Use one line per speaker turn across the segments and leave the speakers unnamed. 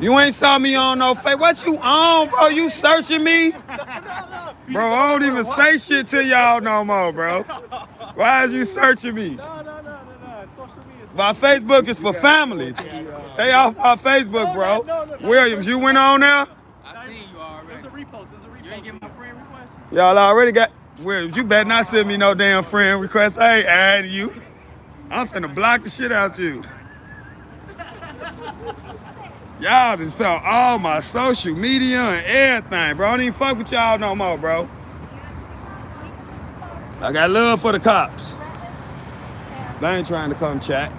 You ain't saw me on no fake. What you on, bro? You searching me? Bro, I don't even say shit to y'all no more, bro. Why is you searching me?
No, no, no, no, no. Social media.
My Facebook is for family. Stay off my
No, no,
Facebook,
no,
bro.
no.
Williams, you went on there?
I seen you
There's
already.
a repost. There's a
You ain't get
repost.
my friend request?
Y'all already got Williams. You better not send me no damn friend request. I ain't adding you. I'm finna block the shit out you. Y'all just fell all my social media and everything, bro. I don't even fuck with y'all no more, bro. I got love for the cops. They ain't trying to come chat.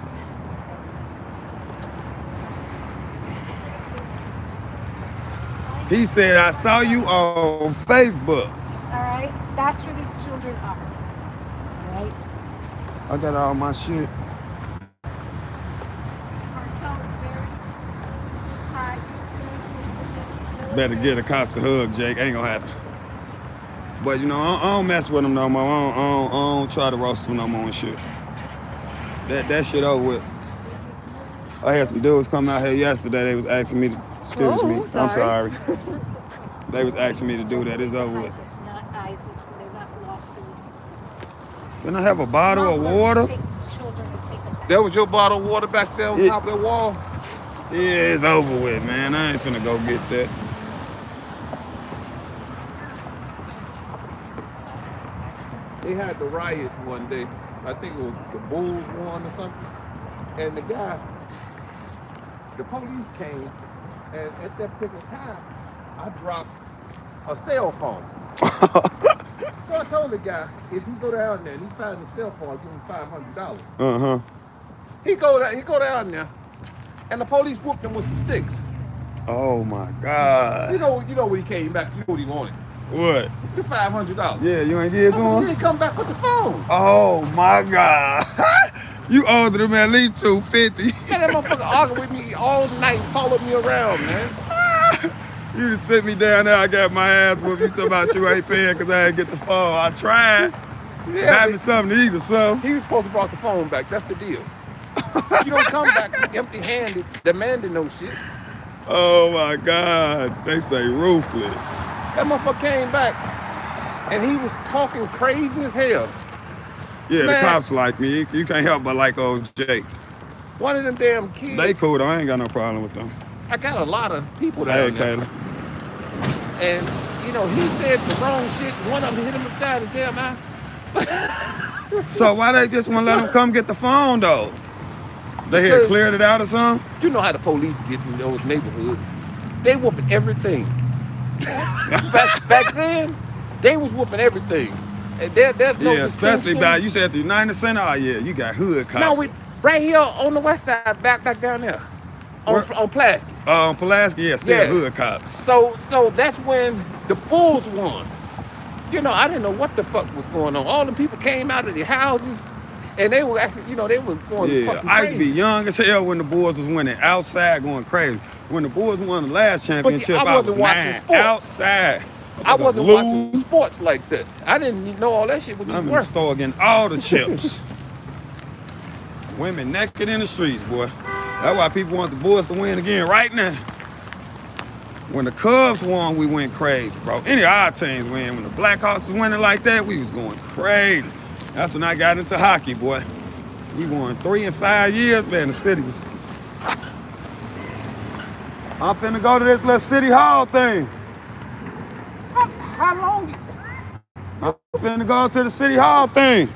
He said, I saw you on Facebook.
All right, that's where these children are. All right,
I got all my shit.
cartel is very high. influence
Better get the cops a hug, Jake. Ain't gonna happen. But you know, I don't, I don't mess with them no more. I don't, I, don't, I don't try to roast them no more and shit. That that shit over with. I had some dudes come out here yesterday. They was asking me to excuse
Oh,
me. I'm sorry.
sorry.
they was asking me to do that. It's over with.
It's not Isaac's, and they're not lost in the system.
Can I have a bottle of water?
Smugglers take these children and take them back.
That was your bottle of water back there on
Yeah.
top of that wall.
Yeah, it's over with, man. I ain't finna go get that.
They had the riot one day. I think it was the Bulls won or something. And the guy, the police came, and at that particular time, I dropped a cell phone. so I told the guy, if he go down there and he finds a cell phone, I'll give him five hundred dollars.
Uh huh.
He go down, he go down there, and the police whooped him with some sticks.
Oh my
You
God.
know, you know what he came back. You know what he wanted.
What?
The five hundred dollars.
Yeah, you ain't give it to
He
him?
didn't come back with the phone.
Oh my God. you older than me at least 250.
Yeah, that motherfucker argued with me all night, followed me around, man.
you just sent me down there. I got my ass whooped. You talking about you ain't paying because I ain't get the phone. I tried. Got me
Yeah,
something to eat or something.
he was supposed to brought the phone back. That's the deal. you don't come back empty-handed, demanding no shit.
Oh my God. They say ruthless.
That motherfucker came back, and he was talking crazy as hell.
Yeah,
Man.
the cops like me. You- You can't help but like old Jake.
One of them damn kids.
They cool though. I ain't got no problem with them.
I got a lot of people
Hey,
down there,
Kayla.
and you know he said the wrong shit. One of them hit him inside his damn eye.
So why they just want to let them come get the phone though? They had
Because-
cleared it out or something?
You know how the police get in those neighborhoods. They whooping everything. back, back then, they was whooping everything. And there, there's no
yeah, especially
distinction.
by you said the United Center. Oh yeah, you got hood cops.
No, we right here on the west side, back back down there, on
Where-
on Plasky.
Um, Pulaski, yeah, still
Yeah.
hood cops.
So so that's when the Bulls won. You know, I didn't know what the fuck was going on. All the people came out of their houses, and they were actually, you know, they was going
Yeah,
fucking
I used to be
crazy.
young as hell when the boys was winning outside, going crazy. When the boys won the last championship,
I
I, was
wasn't watching
nine,
sports.
outside.
I wasn't
Lose.
watching sports like that. I didn't even know all that shit was
I'm
even
in the
worth.
store getting all the chips. Women naked in the streets, boy. That's why people want the boys to win again right now. When the Cubs won, we went crazy, bro. Any of our teams win. When the Blackhawks was winning like that, we was going crazy. That's when I got into hockey, boy. We won three and five years, man. The city was. I'm finna go to this little city hall thing.
How long?
I'm finna go to the city hall thing.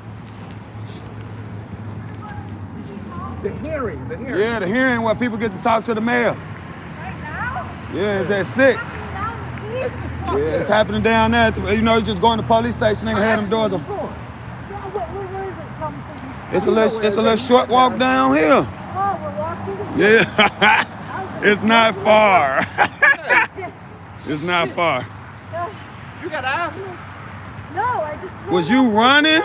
The hearing, the hearing.
Yeah, the hearing where people get to talk to the mayor.
Right now?
Yeah, it's at six.
That's now,
Yeah, it's happening down there. at the- You know, you just go in the police station and have them doors. open.
What, what, where is it? Tell me.
It's a little, it's a little short walk down here.
Oh, we're walking.
Yeah,
How's it-
it's not far. it's not far.
No,
You got asthma?
no, I just.
Was you running?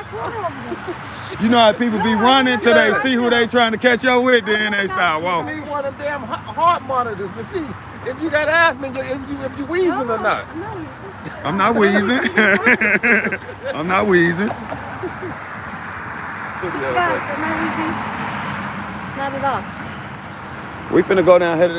You know how people be running till they see who they trying to catch up with, then they start
You
walking.
need one of them damn he- heart monitors to see if you got asthma, you- if you if you wheezing or not.
No, you
I'm not wheezing. I'm not wheezing.
guys, am I leaving? Not at all.
We finna go down here to